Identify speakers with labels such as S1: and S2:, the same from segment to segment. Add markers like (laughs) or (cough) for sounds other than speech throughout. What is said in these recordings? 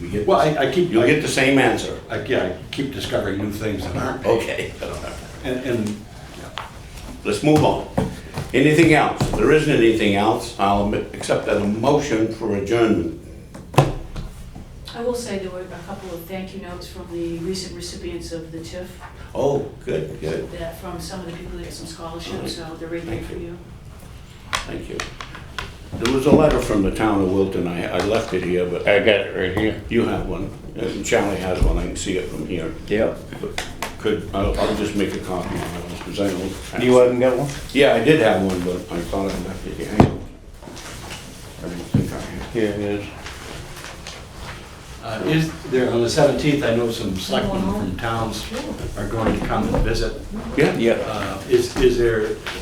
S1: You get,
S2: Well, I, I keep,
S1: you'll
S2: I,
S1: get the same answer.
S2: I- yeah, I keep discovering new things that aren't paid.
S1: Okay, (laughs)
S2: And, and,
S1: let's move on. Anything else? If there isn't anything else, I'll accept a motion for adjournment.
S3: I will say there were a couple of thank you notes from the recent recipients of the TIF,
S1: Oh, good, good,
S3: that from some of the people that got some scholarships, so they're right there for you.
S1: thank you. There was a letter from the town of Wilton, I, I left it here, but
S4: I got it right here.
S1: you have one, and Charlie has one, I can see it from here.
S4: Yeah.
S1: But Could, I'll, I'll just make a copy of it, because I don't.
S4: You haven't got one?
S1: Yeah, I did have one, but I thought I left it here. Hang on. I didn't think I had.
S4: Here it is.
S2: uh, is, there, on the seventeenth, I know some selectmen from towns are going to come and visit.
S1: Yeah,
S4: Yeah.
S2: Uh, is, is there,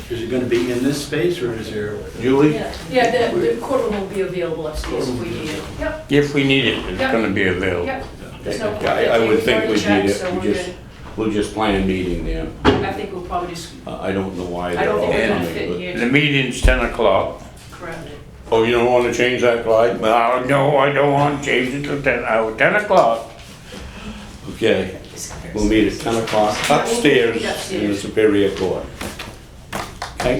S2: is it gonna be in this space, or is there?
S1: Julie?
S3: Yeah, yeah, the the courtroom will be available upstairs if we need it. Yep,
S4: If we need it, it's
S3: Yeah.
S4: gonna be available.
S3: yep. There's no-
S1: I, I would think we'd
S3: already
S1: need
S3: checked, so
S1: it, we
S3: we're
S1: just, we'll just plan a meeting there.
S3: good. I think we'll probably just,
S1: Uh, I don't know why
S3: I
S1: they're
S3: don't
S1: all
S3: think we're gonna
S1: coming.
S3: fit
S1: but-
S3: here,
S4: The meeting's ten o'clock.
S3: correct?
S1: Oh, you don't wanna change that, Clyde?
S4: Uh, no, I don't want to change it to ten, uh, ten o'clock.
S1: Okay, we'll meet at ten o'clock upstairs in the Superior Court. Okay?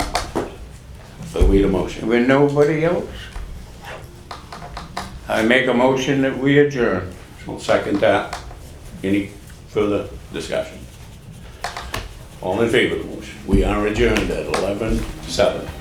S1: So we need a motion.
S4: With nobody else? I make a motion that we adjourn.
S1: I'll second that. Any further discussion? All in favor of the motion? We are adjourned at eleven seven.